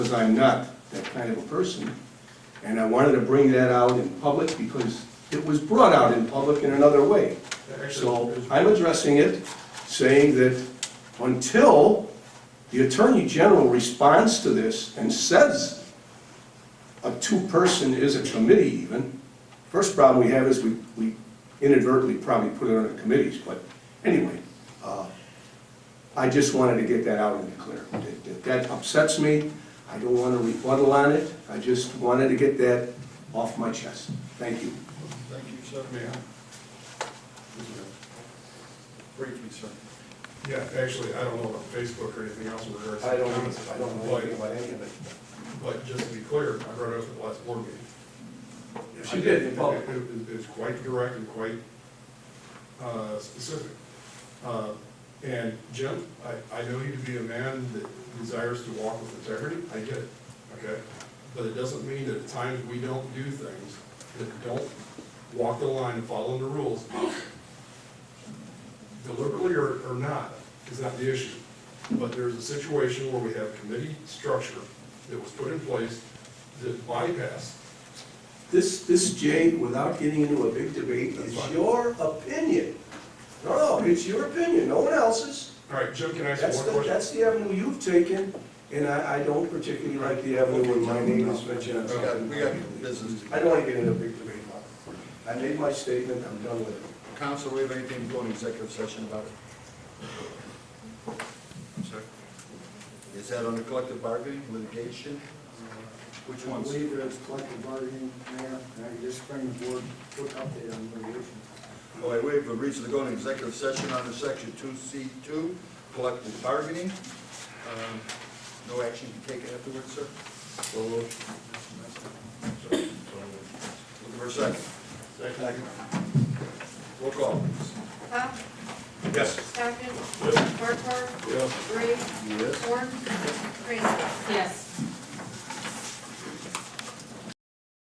because I'm not that kind of a person. And I wanted to bring that out in public because it was brought out in public in another way. So I'm addressing it, saying that until the Attorney General responds to this and says a two-person is a committee even, first problem we have is we we inadvertently probably put it under committees, but anyway, uh, I just wanted to get that out in the clear. That- that- That upsets me, I don't want to rebuttal on it, I just wanted to get that off my chest. Thank you. Thank you, sir. May I? Briefly, sir. Yeah, actually, I don't know about Facebook or anything else in regards to I don't, comments. I don't know anything about any of it. But, but just to be clear, I brought it up at the last board meeting. She did, in public. It- it- It's quite direct and quite uh, specific. Uh, And Jim, I, I know you to be a man that desires to walk with integrity, I get it, okay? But it doesn't mean that at times we don't do things that don't walk the line and follow the rules deliberately or, or not, is not the issue. But there's a situation where we have committee structure that was put in place that bypassed. This, this, Jay, without getting into a big debate, That's is fine. your opinion. No, no, it's your opinion, no one else's. All right, Jim, can I ask you That's one the, question? that's the avenue you've taken, and I, I don't particularly like the avenue when my name is mentioned. on We got, something. we got business. I don't want to get into a big debate about it. I made my statement, I'm done with it. Council, we have anything to go in executive session about it? Sir? Is that under collective bargaining, litigation? Which I ones? believe it's collective bargaining, Mayor, and I just bring the board, quick update on um, litigation. Oh, I waive the reason to go in executive session under section two C two, collective bargaining. Um, No action to be taken afterwards, sir? So, looking for a second. Second. Roll call, please. Pop, Yes. Stockton. Farquhar. Gray. Yes. Horn. Craig. Yes.